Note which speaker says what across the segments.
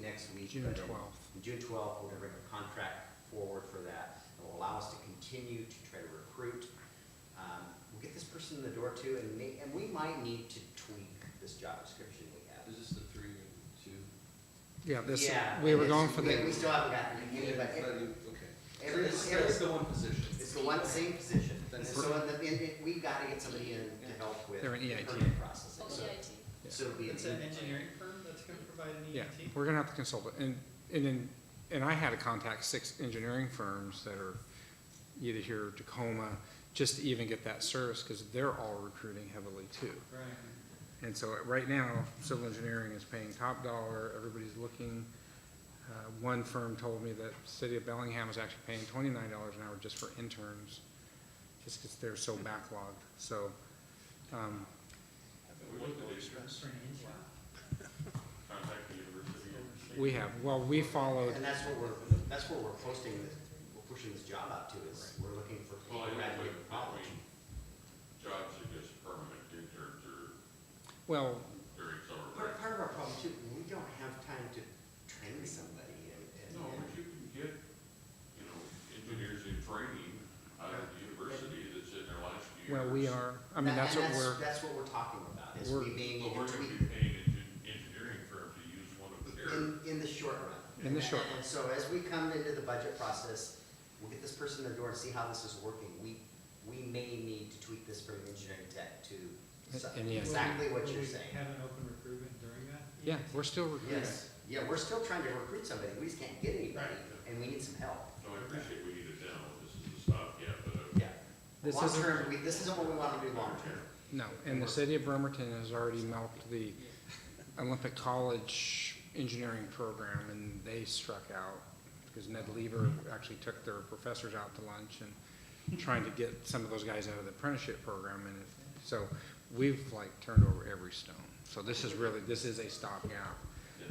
Speaker 1: next week.
Speaker 2: June
Speaker 1: but in-
Speaker 2: 12th.
Speaker 1: in June twelfth, we're gonna bring a contract forward for that. It will allow us to continue to try to recruit. Um, We'll get this person in the door too, and may, and we might need to tweak this job description we have.
Speaker 3: Is this the three and two?
Speaker 2: Yeah, this,
Speaker 1: Yeah,
Speaker 2: we
Speaker 1: and
Speaker 2: were
Speaker 1: it's-
Speaker 2: going for
Speaker 1: we- We
Speaker 2: the,
Speaker 1: still haven't gotten
Speaker 3: Yeah,
Speaker 1: any, but
Speaker 3: but
Speaker 1: it-
Speaker 3: you- Okay. So
Speaker 1: every-
Speaker 3: this-
Speaker 1: every-
Speaker 3: That's the one position.
Speaker 1: it's the one same position.
Speaker 3: Then
Speaker 1: And
Speaker 3: it's-
Speaker 1: so in the, in, it- we gotta get somebody in to
Speaker 3: Yeah.
Speaker 1: help with.
Speaker 2: They're an E EIT.
Speaker 1: permit processing.
Speaker 4: Oh,
Speaker 1: So-
Speaker 4: EIT.
Speaker 2: Yeah.
Speaker 1: So it'll be. an
Speaker 5: E
Speaker 1: E
Speaker 5: It's
Speaker 1: in-
Speaker 5: an engineering firm that's gonna provide an E
Speaker 2: yeah,
Speaker 5: EIT?
Speaker 2: we're gonna have to consult it. And, and then, and I had to contact six engineering firms that are either here or Tacoma, just to even get that service, because they're all recruiting heavily too.
Speaker 5: Right.
Speaker 2: And so right now, civil engineering is paying top dollar, everybody's looking. Uh, One firm told me that City of Bellingham is actually paying twenty-nine dollars an hour just for interns, just because they're so backlogged, so. um,
Speaker 5: That's for an intern.
Speaker 6: contact the university.
Speaker 2: We have, well, we followed,
Speaker 1: And that's what we're, that's what we're posting, this- we're pushing this job out to is we're looking for
Speaker 6: Well,
Speaker 1: people
Speaker 6: I
Speaker 1: who
Speaker 6: think
Speaker 1: graduate
Speaker 6: with,
Speaker 1: from college.
Speaker 6: between jobs that just permanent interns or
Speaker 2: well,
Speaker 6: very accelerated.
Speaker 1: Part, part of our problem too, we don't have time to train somebody and, and.
Speaker 6: No, but you can get, you know, engineers in training out of the university that's in their last year.
Speaker 2: well, we are, I mean,
Speaker 1: That-
Speaker 2: that's
Speaker 1: and
Speaker 2: what we're,
Speaker 1: That's what we're talking about, is
Speaker 2: we're-
Speaker 1: we being able
Speaker 6: But we're
Speaker 1: to
Speaker 6: gonna
Speaker 1: tweak
Speaker 6: be paying an engineering firm to use one of their.
Speaker 1: in, in the short run.
Speaker 2: In the short
Speaker 1: And so as we come into the budget process, we'll get this person in the door and see how this is working. We, we may need to tweak this from engineering tech to so-
Speaker 2: And yes.
Speaker 1: exactly what
Speaker 5: Will
Speaker 1: you're
Speaker 5: we
Speaker 1: saying.
Speaker 5: Have an open recruitment during that? E
Speaker 2: yeah, we're still recruiting.
Speaker 1: Yes, yeah, we're still trying to recruit somebody, we just can't get anybody, and we need some help.
Speaker 6: No, I appreciate we need a demo, this is a stopgap, but uh,
Speaker 1: Yeah.
Speaker 2: This
Speaker 1: Long
Speaker 2: isn't-
Speaker 1: term, we, this isn't what we wanna do long term.
Speaker 2: No, and the city of Bremerton has already mapped the Olympic College engineering program, and they struck out, because Ned Lever actually took their professors out to lunch and trying to get some of those guys out of the apprenticeship program, and it- so we've like turned over every stone. So this is really, this is a stopgap.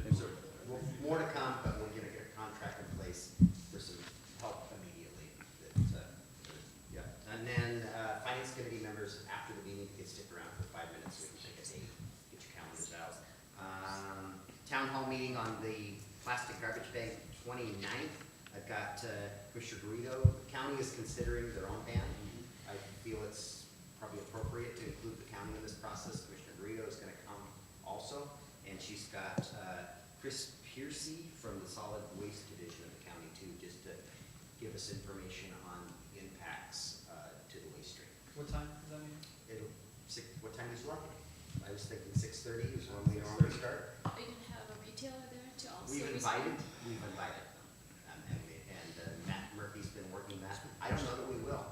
Speaker 6: it's a-
Speaker 1: Well, More to come, but we're gonna get a contract in place for some help immediately. That, uh, Yeah, and then, uh, finance committee members, after the meeting, you can stick around for five minutes, we can take a date, get your calendars out. Um, town hall meeting on the plastic garbage bag 29th. I've got, uh, Commissioner Guido, the county is considering their own ban. I feel it's probably appropriate to include the county in this process. Commissioner Guido is gonna come also, and she's got, uh, Chris Piercy from the Solid Waste Division of the county too, just to give us information on impacts uh, to the waste stream.
Speaker 5: What time does that mean?
Speaker 1: It'll, six, what time is lunch? I was thinking six thirty is when we normally start.
Speaker 4: Are you gonna have a retailer there to also?
Speaker 1: We've
Speaker 4: respond?
Speaker 1: invited, we've invited them. Um, And, we- and uh, Matt Murphy's been working that. I don't know that we will.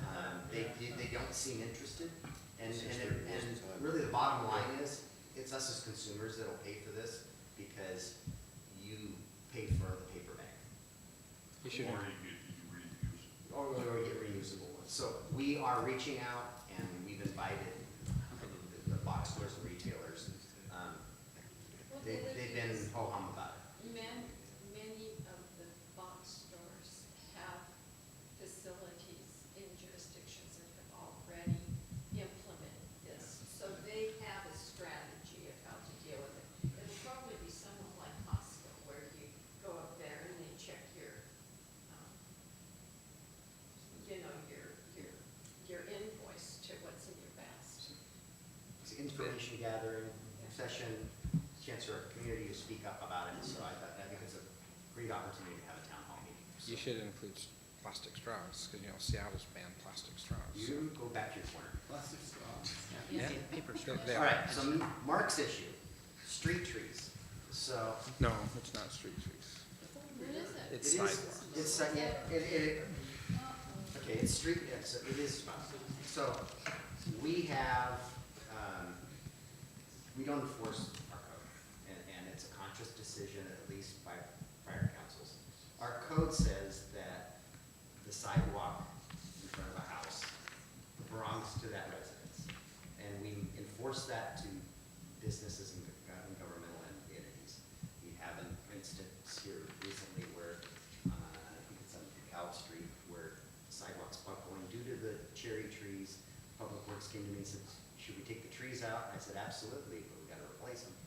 Speaker 1: Um, They, they- they don't seem interested. And, and, it- and really the bottom line is, it's us as consumers that'll pay for this because you paid for the paper bag.
Speaker 2: You should-
Speaker 6: Or you could, you reuse it.
Speaker 1: Or we already get reusable ones. So we are reaching out and we've invited the- the box stores and retailers. Um,
Speaker 4: What
Speaker 1: They,
Speaker 4: would
Speaker 1: they've
Speaker 4: you
Speaker 1: been
Speaker 4: use?
Speaker 1: ho-hum about it.
Speaker 4: Man, many of the box stores have facilities in jurisdictions that have already implemented this. So they have a strategy of how to deal with it. It'll probably be somewhat like Costco, where you go up there and they check your, um, you know, your, your, your invoice to what's in your basket.
Speaker 1: It's information gathering, session, chance for our community to speak up about it. So I thought, I think it's a great opportunity to have a town hall meeting. So
Speaker 2: You should include plastic straws, because, you know, Seattle's banned plastic straws.
Speaker 1: You go back to your corner.
Speaker 3: Plastic
Speaker 1: uh,
Speaker 3: straws.
Speaker 2: Yeah. They- they
Speaker 1: All
Speaker 2: are.
Speaker 1: right, so Mark's issue, street trees. So
Speaker 2: No, it's not street trees.
Speaker 4: What is it?
Speaker 1: it
Speaker 2: It's
Speaker 1: is,
Speaker 2: sidewalks.
Speaker 1: it's, it, it, Okay, it's street, yeah, so it is, so we have, um, we don't enforce our code. And, and it's a conscious decision, at least by prior councils. Our code says that the sidewalk in front of a house belongs to that residence. And we enforce that to businesses and gov- and governmental entities. We have an instance here recently where, uh, I think it's on Cal Street, where sidewalks buckling due to the cherry trees. Public Works came to me and said, should we take the trees out? And I said, absolutely, but we gotta replace Uh, them.